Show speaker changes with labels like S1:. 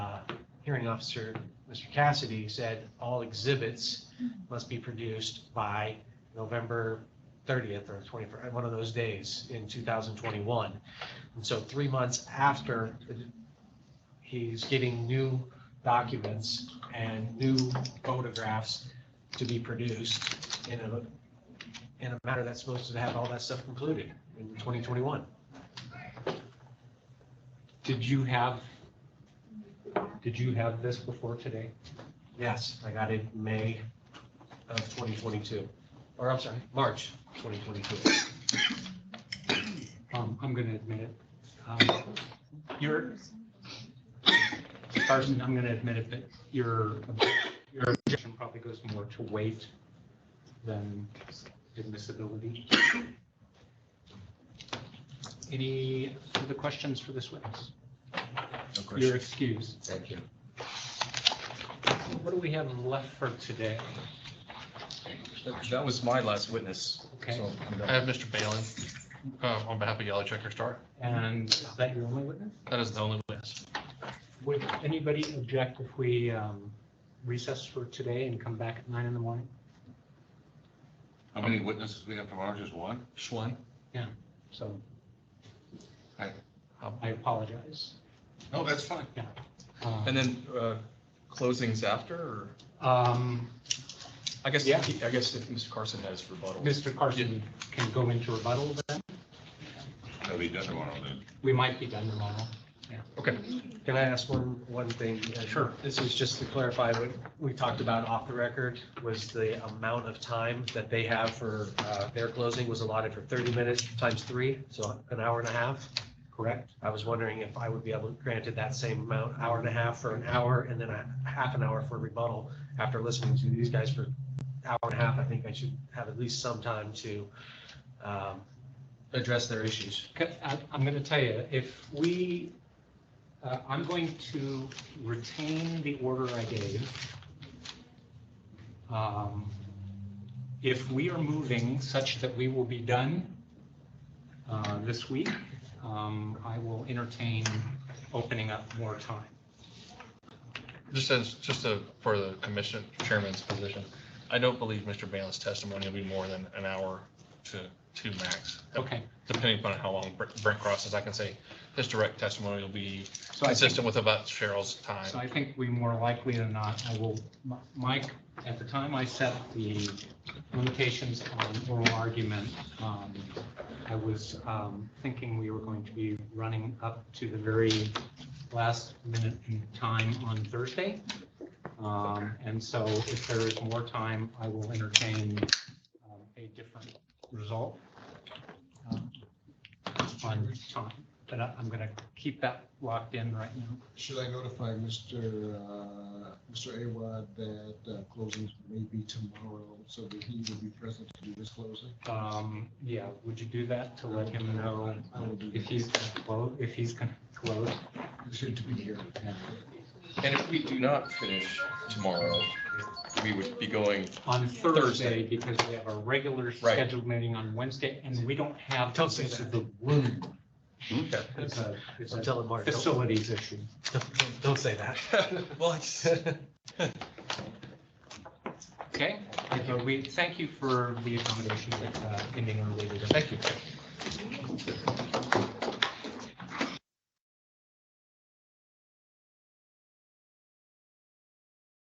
S1: hearing officer, Mr. Cassidy, said all exhibits must be produced by November thirtieth or twenty-first, one of those days in two thousand twenty-one. And so three months after, he's getting new documents and new photographs to be produced in a, in a matter that's supposed to have all that stuff concluded in twenty twenty-one.
S2: Did you have, did you have this before today?
S1: Yes, I got it May of 2022, or I'm sorry, March 2022.
S2: Um, I'm gonna admit it. Um, Your, Carson, I'm gonna admit it, but your, your objection probably goes more to weight than admissibility. Any further questions for this witness?
S3: No
S2: You're
S3: question.
S2: excused.
S3: Thank you.
S2: What do we have left for today?
S3: That- That was my last witness.
S2: Okay.
S3: so I'm done.
S4: I have Mr. Balin, uh, on behalf of Yellow Checker Star.
S2: And is that your only witness?
S4: That is the only witness.
S2: Would anybody object if we um, recess for today and come back at nine in the morning?
S5: How many witnesses we have tomorrow? Just one?
S4: Schwan.
S2: So um,
S5: Aye.
S2: I apologize.
S5: No, that's fine.
S2: Uh,
S3: And then uh, closings after, or,
S2: um,
S3: I guess,
S2: Yeah.
S3: I guess if Mr. Carson has rebuttal.
S2: Mr. Carson can go into rebuttal then.
S5: That'll be done tomorrow then.
S2: We might be done tomorrow.
S3: Okay.
S1: Can I ask one, one thing?
S2: Sure.
S1: This is just to clarify what we talked about off the record, was the amount of time that they have for uh, their closing was allotted for 30 minutes times three, so an hour and a half.
S2: Correct?
S1: I was wondering if I would be able, granted that same amount, hour and a half for an hour, and then a half an hour for rebuttal. After listening to these guys for hour and a half, I think I should have at least some time to um, address their issues.
S2: Okay, I- I'm going to tell you, if we, uh, I'm going to retain the order I gave. Um, If we are moving such that we will be done uh, this week, um, I will entertain opening up more time.
S4: Just as, just to- for the commission chairman's position, I don't believe Mr. Balin's testimony will be more than an hour to two max.
S2: Okay,
S4: Depending upon how long Brent Brent crosses, I can say his direct testimony will be
S2: so I think,
S4: consistent with about Cheryl's
S2: so
S4: time.
S2: I think we more likely than not, I will, Mike, at the time I set the limitations on oral argument, um, I was um, thinking we were going to be running up to the very last minute in time on Thursday. Um, And so if there is more time, I will entertain um, a different result um, on time. But I- I'm going to keep that locked in right now.
S6: Should I notify Mr. uh, Mr. Awad that uh, closings may be tomorrow, so that he will be present to do his closing?
S2: Um, yeah, would you do that to let him know
S6: I will do
S2: if he's gonna close, if he's gonna close?
S6: He should be here.
S3: And if we do not finish tomorrow, we would be going,
S2: On Thursday,
S3: Thursday.
S2: because we have a regular
S3: Right.
S2: scheduled meeting on Wednesday, and we don't have.
S1: Don't say
S2: use of
S1: that.
S2: The room.
S3: Okay.
S2: It's a, it's
S1: I'm
S2: a
S1: telling Mark, don't,
S2: facilities issue.
S1: don't- don't say that.
S3: well, it's-
S2: Okay, Uh, we, thank you for the accommodation that, uh, ending early. today.
S4: Thank you.